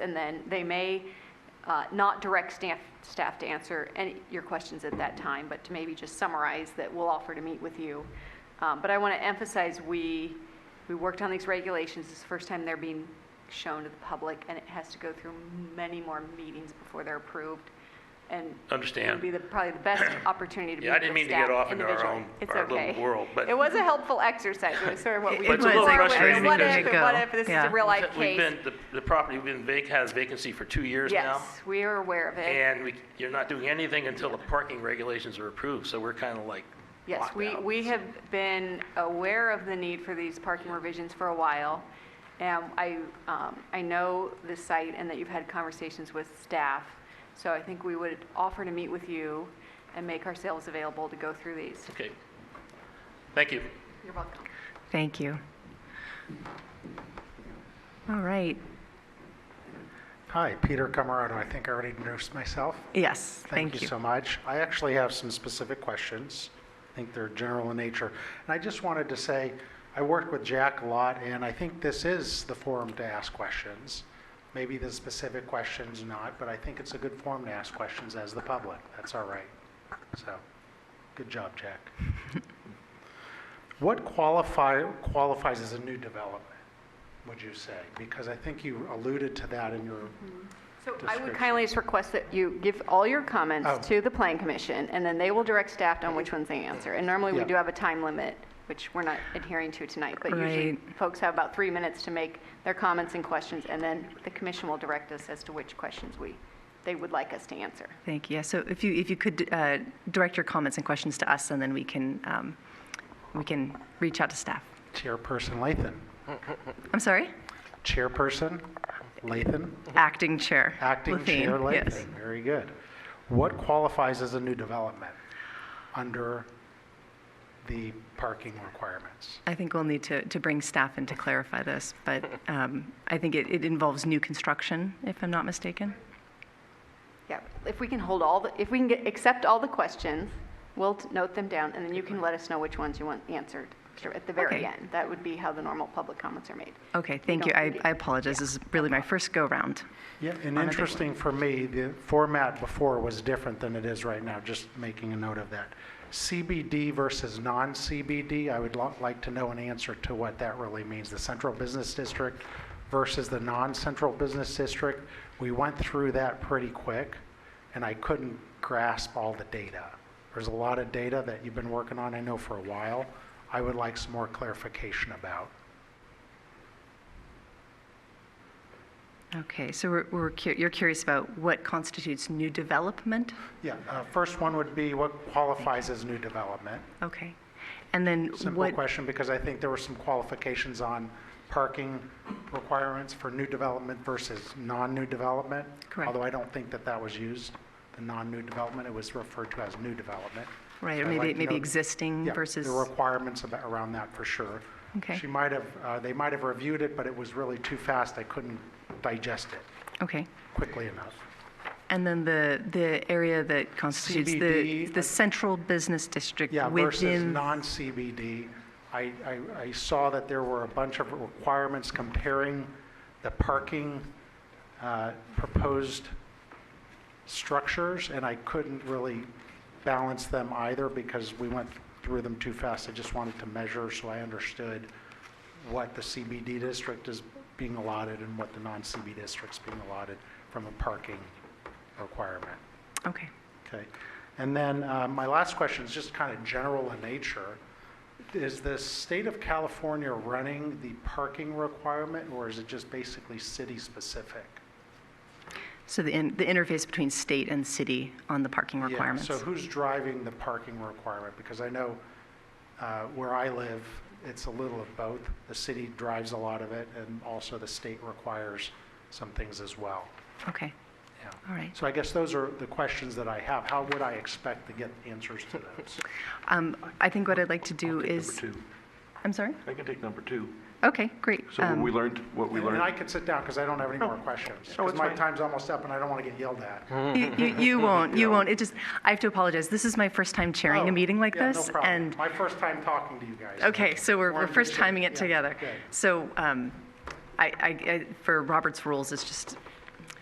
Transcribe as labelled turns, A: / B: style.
A: and then they may uh, not direct staff, staff to answer any, your questions at that time, but to maybe just summarize that we'll offer to meet with you. Um, But I want to emphasize, we, we worked on these regulations, it's the first time they're being shown to the public, and it has to go through many more meetings before they're approved, and it would be
B: Understand.
A: the, probably the best opportunity to meet
B: Yeah, I
A: with
B: didn't mean to get
A: staff
B: off into our
A: individually.
B: own-
A: It's
B: our little
A: okay.
B: world, but-
A: It was a helpful exercise, it was sort of what we.
B: But it's a
A: we
B: little
A: were with,
B: frustrating
A: What
B: because-
A: if, and what if, this is
C: Yeah.
A: a real life
B: We've
A: case?
B: been, the, the property we've been vac, has vacancy for two years now.
A: Yes, we are aware of it.
B: And we, you're not doing anything until the parking regulations are approved, so we're kind of like
A: Yes,
B: locked
A: we,
B: out.
A: we have been aware of the need for these parking revisions for a while. And I, um, I know the site and that you've had conversations with staff. So I think we would offer to meet with you and make ourselves available to go through these.
B: Okay. Thank you.
A: You're welcome.
C: Thank you. All right,
D: Hi, Peter Camarado. I think I already introduced myself.
C: yes, thank you.
D: so much. I actually have some specific questions. I think they're general in nature. And I just wanted to say, I work with Jack a lot, and I think this is the forum to ask questions. Maybe the specific questions not, but I think it's a good forum to ask questions as the public. That's all right. So, good job, Jack. What qualify, qualifies as a new development, would you say? Because I think you alluded to that in your
A: So I would
D: Description.
A: kindly just request that you give all your
D: Oh.
A: comments to the Plan Commission, and then they will direct staff on which ones they answer. And normally, we
D: Yeah.
A: do have a time limit, which we're not adhering to tonight, but usually
C: Right.
A: folks have about three minutes to make their comments and questions, and then the commission will direct us as to which questions we, they would like us to answer.
C: Thank you. Yeah, So if you, if you could uh, direct your comments and questions to us, and then we can, um, we can reach out to staff.
D: chairperson, Lathan.
C: I'm sorry?
D: Mm-hmm. Chairperson Lathan,
C: Acting Chair.
D: acting
C: Levine,
D: chair
C: Yes.
D: Lathan. Very good. What qualifies as a new development under the parking requirements?
C: I think we'll need to, to bring staff in to clarify this, but um, I think it, it involves new construction, if I'm not mistaken.
A: Yeah, if we can hold all, the if we can get, accept all the questions, we'll t- note them down, and then you can let us know which ones you want answered sure, at the very
C: Okay.
A: end. That would be how the normal public comments are made.
C: Okay, thank you.
A: don't
C: I,
A: need-
C: I apologize. This is really my first go-round.
D: Yeah, and interesting for me, the format before was different than it is right now, just making a note of that. CBD versus non-CBD, I would lo- like to know an answer to what that really means, the central business district versus the non-central business district. We went through that pretty quick, and I couldn't grasp all the data. There's a lot of data that you've been working on, I know, for a while. I would like some more clarification about.
C: Okay, so we're, we're, cu- you're curious about what constitutes new development?
D: Yeah, uh, first one would be what qualifies as new development?
C: Okay. And then
D: Simple
C: what?
D: question, because I think there were some qualifications on parking requirements for new development versus non-new development.
C: Correct.
D: Although I don't think that that was used, the non-new development, it was referred to as new development.
C: Right, or
D: I'd like
C: maybe,
D: to
C: maybe
D: know-
C: existing
D: Yeah,
C: versus,
D: The requirements about- around that for sure.
C: Okay.
D: She might have, uh, they might have reviewed it, but it was really too fast. I couldn't digest it
C: okay.
D: quickly enough.
C: And then the, the area that constitutes the,
D: CBD,
C: the
D: uh,
C: central business district
D: Yeah, versus
C: within,
D: non-CBD. I, I, I saw that there were a bunch of requirements comparing the parking uh, proposed structures, and I couldn't really balance them either because we went through them too fast. I just wanted to measure so I understood what the CBD district is being allotted and what the non-CBD district's being allotted from a parking requirement.
C: okay.
D: Okay. And then uh, my last question is just kind of general in nature. Is the state of California running the parking requirement, or is it just basically city-specific?
C: So the, in- the interface between state and city on the parking
D: Yeah,
C: requirements.
D: So who's driving the parking requirement? Because I know uh, where I live, it's a little of both. The city drives a lot of it, and also the state requires some things as well.
C: Okay,
D: Yeah.
C: all right.
D: So I guess those are the questions that I have. How would I expect to get answers to those?
C: Um, I think what I'd like to do
E: Take
C: is,
E: Number two.
C: I'm sorry?
E: I can take number two.
C: Okay, great.
E: So what
C: Um,
E: we learned, what we
D: And I
E: learned,
D: could sit down because I don't have any more questions.
E: Oh,
D: Because
E: it's
D: my
E: fine. Mm-hmm.
D: time's almost up and I don't want to get yelled at.
C: You, you- you won't, you won't. It just, I have to apologize. This is my first time chairing
D: Oh,
C: a meeting like
D: yeah, no
C: this.
D: problem.
C: And,
D: My first time talking to you guys.
C: okay, so we're, we're
D: Wanted to
C: first
D: share-
C: timing it
D: yeah,
C: together.
D: good.
C: So um, I, I, I- for Robert's rules, it's just